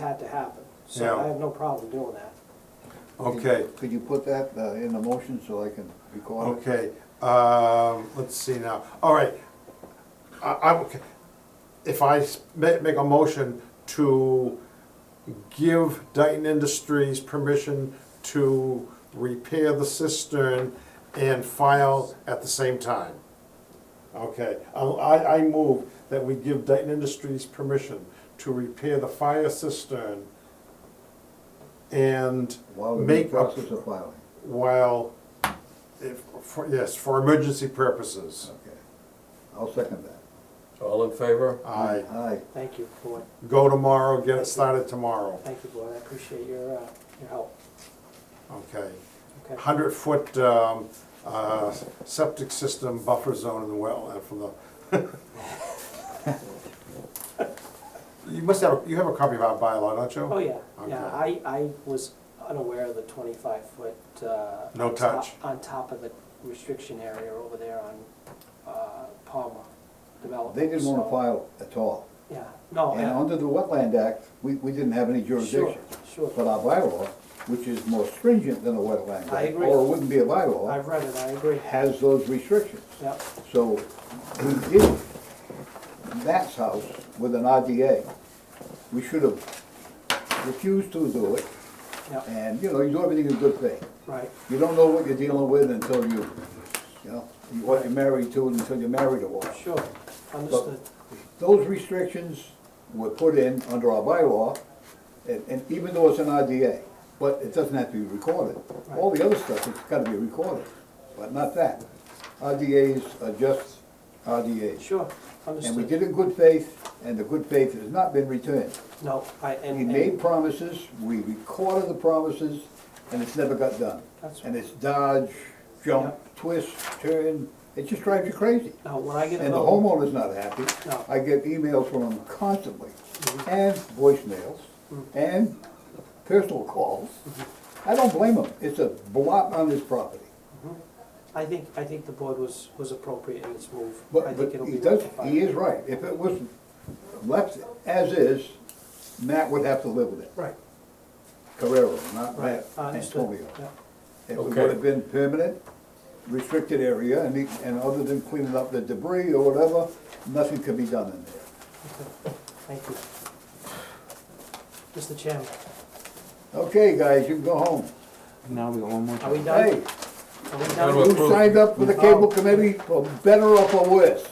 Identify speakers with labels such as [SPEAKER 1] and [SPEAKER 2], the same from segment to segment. [SPEAKER 1] that to happen. So
[SPEAKER 2] Yeah.
[SPEAKER 1] I have no problem doing that.
[SPEAKER 2] Okay,
[SPEAKER 3] Could you put that uh, in the motion so I can record it?
[SPEAKER 2] okay, um, let's see now, all right. I, I, will- if I s- ma- make a motion to give Dayton Industries permission to repair the cistern and file at the same time. Okay, I, I I move that we give Dayton Industries permission to repair the fire cistern and
[SPEAKER 3] While we're in the
[SPEAKER 2] make a
[SPEAKER 3] process of filing.
[SPEAKER 2] while, if, for, yes, for emergency purposes.
[SPEAKER 3] Okay. I'll second that.
[SPEAKER 4] All in favor?
[SPEAKER 2] I
[SPEAKER 3] Aye.
[SPEAKER 1] Thank you, Boyd.
[SPEAKER 2] go tomorrow, get it started tomorrow,
[SPEAKER 1] Thank you, Boyd. I appreciate your, uh, your help.
[SPEAKER 2] okay?
[SPEAKER 1] Okay.
[SPEAKER 2] Hundred foot, um, uh, septic system buffer zone in the well, uh, for the. You must have, you have a copy of our bylaw, don't you?
[SPEAKER 1] Oh, yeah, yeah. I,
[SPEAKER 2] Okay.
[SPEAKER 1] I was unaware of the twenty-five foot, uh.
[SPEAKER 2] No touch.
[SPEAKER 1] top- On top of the restriction area over there on, uh, Palmer Development.
[SPEAKER 3] They didn't want
[SPEAKER 1] so- Oh,
[SPEAKER 3] to file at all.
[SPEAKER 1] Yeah, no.
[SPEAKER 3] And
[SPEAKER 1] I-
[SPEAKER 3] under the Wetland Act, we, we didn't have any
[SPEAKER 1] Sure,
[SPEAKER 3] jurisdiction. But
[SPEAKER 1] sure.
[SPEAKER 3] our bylaw, which is more stringent than the Wetland Act.
[SPEAKER 1] I agree.
[SPEAKER 3] Or it wouldn't be a bylaw,
[SPEAKER 1] I've read it, I agree.
[SPEAKER 3] has those restrictions.
[SPEAKER 1] Yep,
[SPEAKER 3] So we did Matt's house with an RDA. We should have refused to do it,
[SPEAKER 1] yep,
[SPEAKER 3] and, you know, you do everything in good faith.
[SPEAKER 1] right.
[SPEAKER 3] You don't know what you're dealing with until you, you know, you- what you're married to, and until you're married to one.
[SPEAKER 1] Sure, understood.
[SPEAKER 3] Those restrictions were put in under our bylaw, and, and even though it's an RDA, but it doesn't have to be recorded. All the other stuff, it's gotta be recorded, but not that. RDAs are just RDAs.
[SPEAKER 1] Sure,
[SPEAKER 3] And we
[SPEAKER 1] understood.
[SPEAKER 3] did it in good faith, and the good faith has not been returned.
[SPEAKER 1] No, I, and.
[SPEAKER 3] We
[SPEAKER 1] and-
[SPEAKER 3] made promises, we recorded the promises, and it's never got done.
[SPEAKER 1] That's
[SPEAKER 3] And it's dodge, jump, twist, turn, it just drives you crazy.
[SPEAKER 1] No, when I get a
[SPEAKER 3] And the
[SPEAKER 1] bill,
[SPEAKER 3] homeowner's not happy.
[SPEAKER 1] Uh, No. Mm-hmm.
[SPEAKER 3] I get emails from him constantly, and voicemails, and personal calls.
[SPEAKER 1] Mm-hmm.
[SPEAKER 3] I don't blame him, it's a blot on his property.
[SPEAKER 1] I think, I think the board was, was appropriate in its move. I
[SPEAKER 3] But,
[SPEAKER 1] think
[SPEAKER 3] but
[SPEAKER 1] it'll
[SPEAKER 3] he
[SPEAKER 1] be
[SPEAKER 3] does,
[SPEAKER 1] rectified.
[SPEAKER 3] he is right, if it was left as is, Matt would have to live with it.
[SPEAKER 1] Right,
[SPEAKER 3] Carrero, not
[SPEAKER 1] right,
[SPEAKER 3] Matt
[SPEAKER 1] I understood.
[SPEAKER 3] Antonio.
[SPEAKER 1] Yeah.
[SPEAKER 3] It would
[SPEAKER 4] Okay.
[SPEAKER 3] have been permanent, restricted area, and, he- and other than cleaning up the debris or whatever, nothing could be done in there.
[SPEAKER 1] Thank you. Mr. Chairman,
[SPEAKER 3] Okay, guys, you can go home.
[SPEAKER 5] Now we got one more.
[SPEAKER 1] are we
[SPEAKER 3] Hey,
[SPEAKER 1] done? Are we
[SPEAKER 4] Gotta
[SPEAKER 1] done?
[SPEAKER 4] approve.
[SPEAKER 3] who signed up for the cable committee, for better or for worse?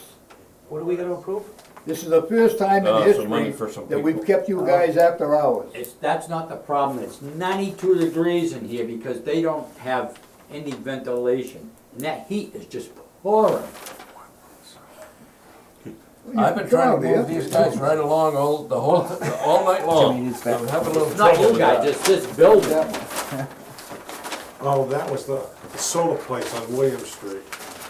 [SPEAKER 1] What are we gonna approve?
[SPEAKER 3] This is the first time in
[SPEAKER 4] Uh, some
[SPEAKER 3] history
[SPEAKER 4] money for some
[SPEAKER 3] that we've
[SPEAKER 4] people.
[SPEAKER 3] kept you guys after hours.
[SPEAKER 6] It's, that's not the problem, it's ninety-two degrees in here because they don't have any ventilation. And that heat is just pouring.
[SPEAKER 4] I've been trying to
[SPEAKER 3] Come on,
[SPEAKER 4] move
[SPEAKER 3] man.
[SPEAKER 4] these guys right along all, the whole, all night
[SPEAKER 5] Jimmy
[SPEAKER 4] long.
[SPEAKER 5] needs that.
[SPEAKER 4] I'm having a little
[SPEAKER 6] It's not
[SPEAKER 4] trouble
[SPEAKER 6] you
[SPEAKER 4] with
[SPEAKER 6] guys,
[SPEAKER 4] that.
[SPEAKER 6] it's this building.
[SPEAKER 3] That one.
[SPEAKER 2] Oh, that was the solar place on William Street.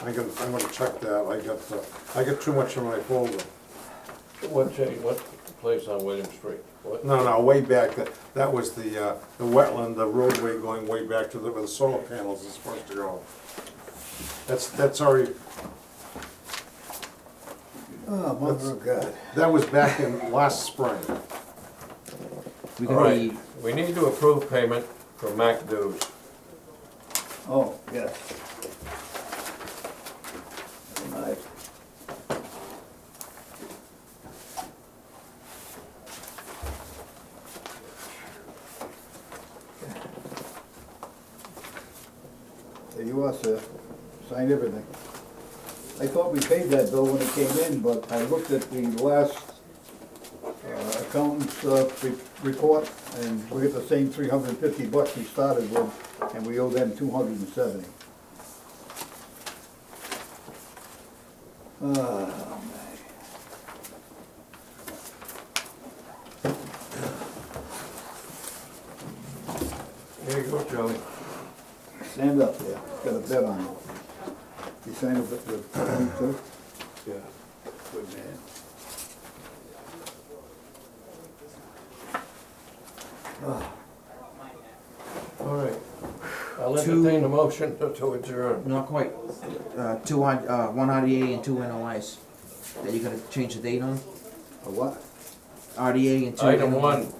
[SPEAKER 2] I can, I'm gonna check that, I got, the- I got too much in my folder.
[SPEAKER 4] What, cha- what place on William Street? What?
[SPEAKER 2] No, no, way back, that, that was the, uh, the wetland, the roadway going way back to the, where the solar panels is supposed to go. That's, that's already,
[SPEAKER 3] Oh, mother of God.
[SPEAKER 2] that was back in last spring.
[SPEAKER 5] We
[SPEAKER 4] All
[SPEAKER 5] got
[SPEAKER 4] right,
[SPEAKER 5] the,
[SPEAKER 4] we need to approve payment for MAC dues.
[SPEAKER 3] Oh, yes. All right. There you are, sir. Signed everything. I thought we paid that bill when it came in, but I looked at the last uh, accountant's uh, re- report, and we get the same three hundred and fifty bucks we started with, and we owe them two hundred and seventy. Oh,
[SPEAKER 2] There you go, Charlie.
[SPEAKER 3] man. Stand up there, got a bet on you. You signed up at the, too?
[SPEAKER 2] Yeah.
[SPEAKER 3] Good man.
[SPEAKER 4] All right. I'll entertain a motion to adjourn.
[SPEAKER 5] not quite, uh, two, I- uh, one RDA and two NOIs. That you gotta change the date on?
[SPEAKER 3] A what?
[SPEAKER 5] RDA and two.
[SPEAKER 4] Item
[SPEAKER 5] NOIs.
[SPEAKER 4] one,